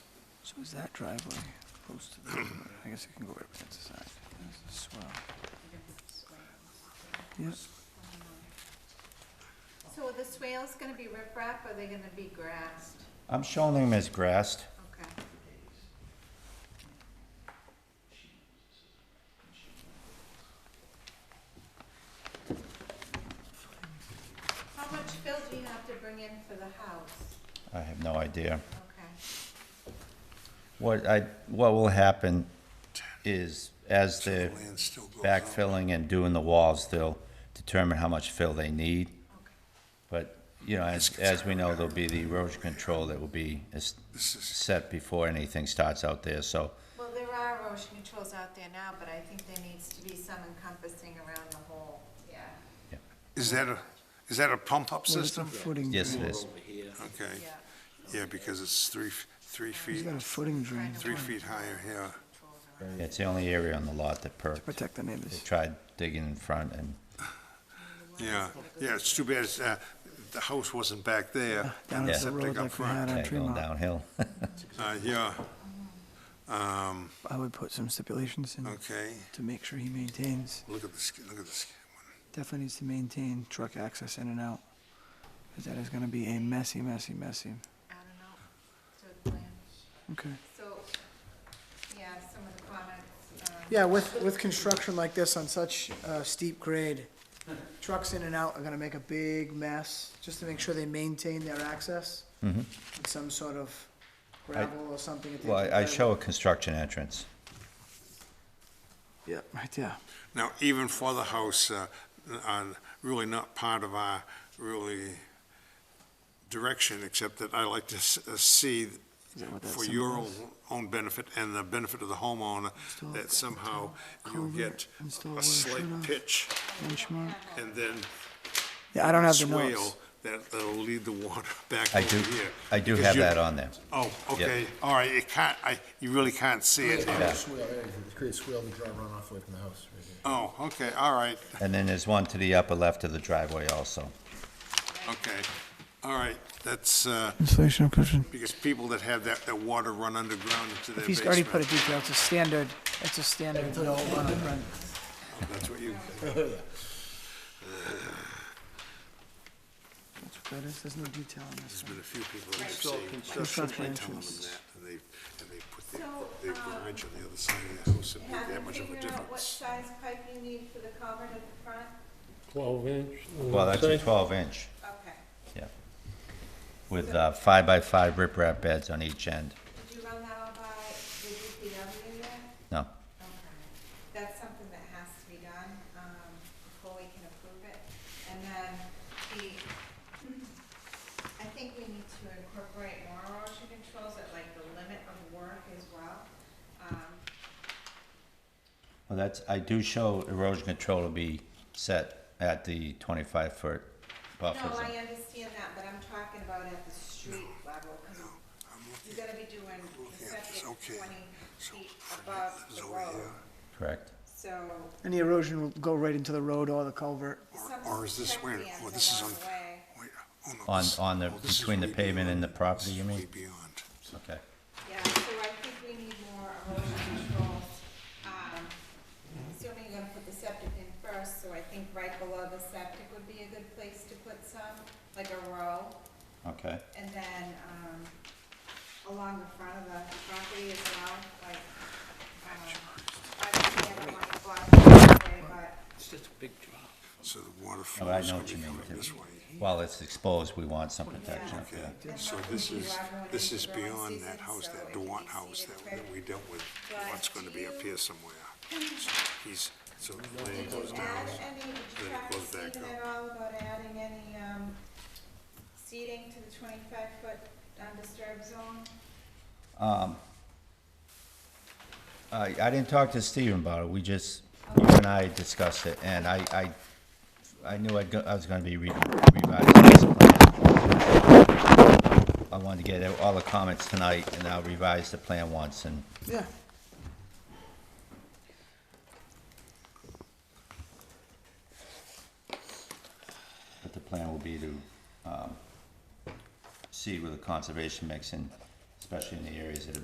So is that driveway close to the, I guess I can go right up against the side. That's a swell. Yes, So are the swales gonna be riprap, or are they gonna be grassed? I'm showing them as grassed. Okay. How much fill do you have to bring in for the house? I have no idea. Okay. What I, what will happen is as So the the land still goes out. backfilling and doing the walls, they'll determine how much fill they need. But, you know, as, as we know, there'll be the erosion control that will be es- This is- set before anything starts out there, so, Well, there are erosion controls out there now, but I think there needs to be some encompassing around the whole. Yeah. Is that a, is that a pump-up well, it's a system? footing. yes, it is. Okay, Yeah. yeah, because it's three, f- three He's feet, got a footing drain three feet higher, yeah. Controls around. It's the only area on the lot that to perked. protect the They neighbors. tried digging in front and, Yeah, yeah, it's too bad, it's, uh, the house wasn't back there. Uh, Down Yeah. at the Septic road up like we front. had on yeah, going Tremont. downhill. Uh, yeah. Um, I would put some stipulations in okay, to make sure he maintains, look at this, look at this. definitely needs to maintain truck access in and out. Cause that is gonna be a messy, messy, messy. I don't know, so plan, Okay. so, yeah, some of the comments, um. Yeah, with, with construction like this on such a steep grade, trucks in and out are gonna make a big mess, just to make sure they maintain their access. With some sort of gravel or something. that they Mm-hmm. Well, can I- I drive show a construction entrance. Yep. Right there. Now, even for the house, uh, uh, really not part of our really direction, except that I like to s- uh, see Is that what that for symbol your is? own, own benefit and the benefit of the homeowner, Install- that somehow you culvert, get install a water slight shut-off. pitch Benchmark. and then Yeah, I don't have the notes. swale that, that'll lead the water back I over do, here. I do Because have you- that on there. Oh, okay, all right, you can't, I, you really can't see it. Yeah. Swale, yeah, you create a swale to draw runoff away from the house, right here. Oh, okay, all right, And then there's one to the upper left of the driveway also. okay, all right, that's, uh, Installation of cushion. because people that have that, that water run underground into their If he's already put a basement. detail, it's a standard, it's a standard. run-on-run. That's what you, That's what that is. There's no detail on this. there's been a few people that I've seen, Construction I tell them entrance. that, and they, and they put their, So, their um, garage on the other side of the house, it made Have that you much of a figured out what difference. size pipe you need for the culvert at the front? Twelve inch. uh, Well, that's a twelve inch, Okay, yeah. With uh, five by five riprap beds on each end. did you run that all by the DPW yet? No, Okay, that's something that has to be done, um, before we can approve it. And then the, I think we need to incorporate more erosion controls at like the limit of work as well. Um, well, that's, I do show erosion control to be set at the twenty-five foot buffer No, I uh, zone. understand that, but I'm talking about at the street level, 'cause you're gonna be doing the Yeah, it's septic okay. twenty So, feet Fred above lives the over road, here. Correct. so And the erosion will go right into the road or the culvert. some Or is this check where, dams oh, this is on, along the way. wait, oh, no, On- this- on the- oh, this is between the way pavement and beyond. the property, This you is mean? Way beyond. Okay. Yeah, so I think we need more erosion controls. Um, Assuming you're gonna put the septic in first, so I think right below the septic would be a good place to put some, like a row. Okay. And then, um, along the front of the property as well, like, um, I don't think everyone can block the way, but So the water Oh, flow I is know gonna what be you mean. coming too. this way. While it's exposed, we want some protection up Okay, there. so this is, this is beyond that house, that Dewan house that that we dealt with, what's gonna be up here somewhere. He's, so the land Did goes you down, add any, did you then it talk to goes back Stephen at up. all about adding any, um, seating to the twenty-five foot undisturbed zone? I, I didn't talk to Steven about it, we just, you and I discussed it, and I, I, I knew I'd go, I was gonna be re- revising this plan. I wanted to get all the comments tonight, and I'll revise the plan once, and Yeah. But the plan will be to um, see where the conservation mix in, especially in the areas that have